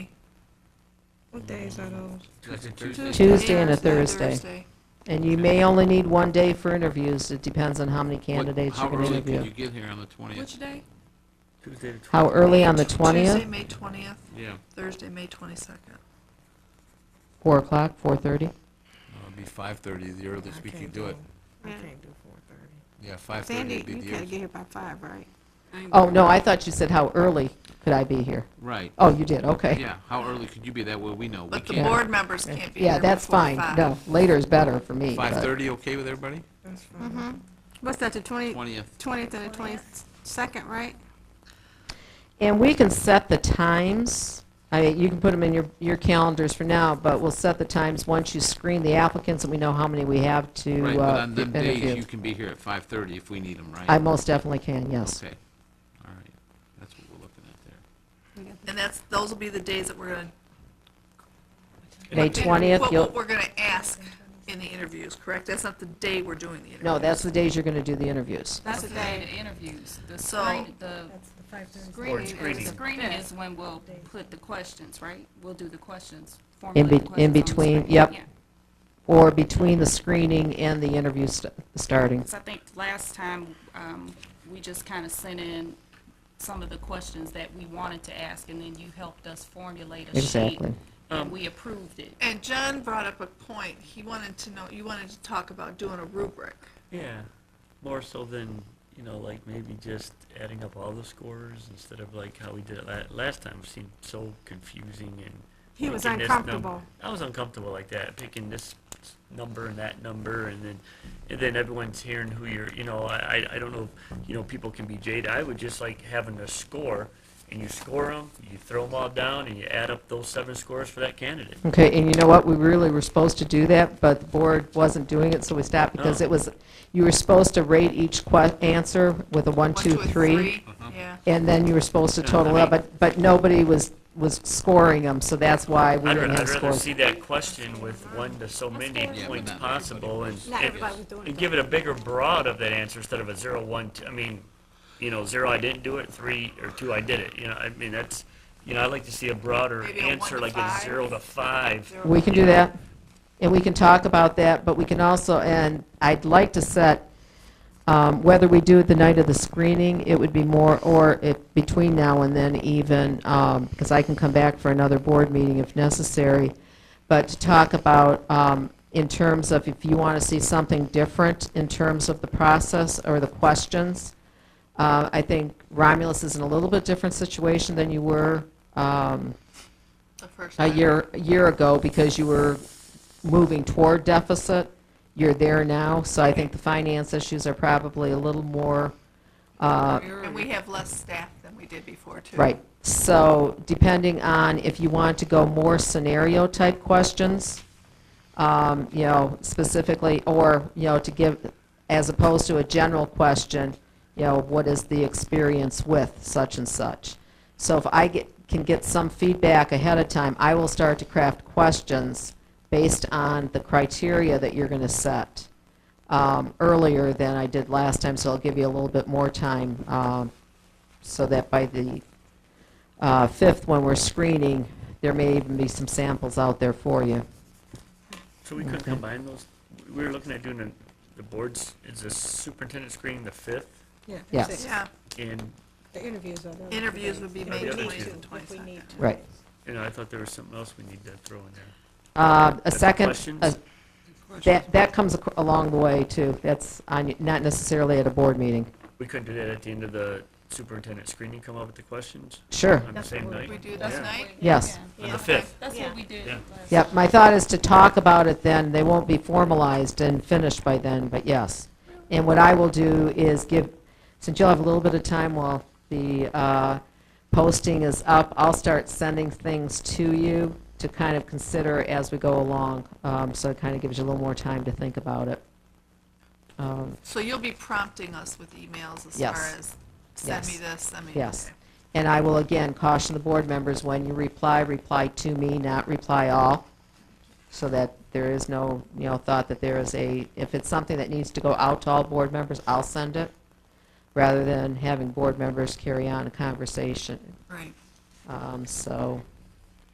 What days are those? That's a Tuesday. Tuesday and a Thursday. Thursday. And you may only need one day for interviews. It depends on how many candidates you're going to How early can you interview. get here on the 20th? Which day? Tuesday the twelfth. How early on the Tuesday, 20th? May 20th, Yeah, Thursday, May 22nd. 4 o'clock, 4:30? no, it'd be 5:30, the earliest we I can can't do it. I Yeah. can't do four thirty. Yeah, 5:30 Sandy, would be you the gotta get earliest. here by five, right? Oh, no, I thought you said how early could I be here? Right, Oh, you did, okay. yeah, how early could you be? That way we know. We But the can't- board members can't be here Yeah, that's before fine. five. No, later is better for me. but- 5:30, okay with everybody? That's fine. Mm-hmm. What's that, the twenty, 20th. twentieth and the twenty-second, right? And we can set the times. I, you can put them in your, your calendars for now, but we'll set the times once you screen the applicants and we know how many we have Right, to but uh, on them days, interview. you can be here at 5:30 if we need them, right? I most definitely can, yes. Okay, all right, that's what we're looking at there. And that's, those will be the days that we're going May to. 20th, What you'll, we're going to ask in the interviews, correct? That's not the day we're doing the interviews. no, that's the days you're going to do the interviews. That's the day the interviews, the So- screen, the That's the five thirty. screening, screening. the screening is when we'll put the questions, right? We'll do the questions, In formulate be, the questions. in on the between, screen, yep. yeah. Or between the screening and the interview st- starting. 'Cause I think last time, um, we just kind of sent in some of the questions that we wanted to ask, and then you helped us formulate a sheet. Exactly. And we approved it. And John brought up a point. He wanted to know, you wanted to talk about doing a rubric. Yeah, more so than, you know, like maybe just adding up all the scores instead of like how we did it la- last time, seemed so confusing and. He was picking this num- uncomfortable. I was uncomfortable like that, picking this s- number and that number and then, and then everyone's hearing who you're, you know, I, I- I don't know, if, you know, people can be jaded. I would just like having a score and you score them, you throw them all down and you add up those seven scores for that candidate. Okay, and you know what, we really were supposed to do that, but the board wasn't doing it, so we stopped because Oh. it was, you were supposed to rate each que, answer with a one, One, two, a three. Uh-huh. Yeah. And then you were supposed to No, I total up, mean- but, but nobody was, was scoring them, so that's why we I'd, ra- didn't I'd have rather scores. see that question with one to so many Yeah, but points not possible and, Not and, everybody was doing and it. give it a bigger broad of that answer instead of a zero, one, two, I mean, you know, zero, I didn't do it, three, or two, I did it, you know, I mean, that's, you know, I'd like to see a broader Maybe a one answer, to like a five. zero to five. Zero We can do that, and we can talk about that, but we can also, and I'd like to set, um, whether we do it the night of the screening, it would be more, or it, between now and then even, because I can come back for another board meeting if necessary, but to talk about, um, in terms of if you want to see something different in terms of the process or the questions, Uh, I think Romulus is in a little bit different situation than you were um, The first a time. year, a year ago because you were moving toward deficit. You're there now, so I think the finance issues are probably a little more, uh, And we have less staff than we did before, too. right. So depending on if you want to go more scenario-type questions, um, you know, specifically, or, you know, to give, as opposed to a general question, you know, what is the experience with such and such? So if I get, can get some feedback ahead of time, I will start to craft questions based on the criteria that you're going to set um, earlier than I did last time, so I'll give you a little bit more time, um, so that by the uh, fifth, when we're screening, there may even be some samples out there for you. So we could combine those, we were looking at doing the, the boards, is the superintendent screening the fifth? Yes. that's it. Yeah, And, The interviews are. the other Interviews days. would be If May we need 20th to, and if we 22nd. need to. Right. you know, I thought there was something else we need to throw in there. Uh, A The second, questions? a- that, that comes ac- along the way, too. That's on y- not necessarily at a board meeting. We couldn't do that at the end of the superintendent screening, come up with the questions Sure, on the same night? we do this Yeah. night. yes. Yeah, On the Okay. fifth. That's Yeah. what we did Yeah. last. Yep, my thought is to talk about it then, they won't be formalized and finished by then, but yes. And what I will do is give, since you'll have a little bit of time while the uh, posting is up, I'll start sending things to you to kind of consider as we go along, um, so it kind of gives you a little more time to think about it. Um, So you'll be prompting us with emails as Yes. far as, send me Yes. this, send me. Yes. okay. And I will again caution the board members, when you reply, reply to me, not reply all, so that there is no, you know, thought that there is a, if it's something that needs to go out to all board members, I'll send it, rather than having board members carry on a conversation. Right. Um, So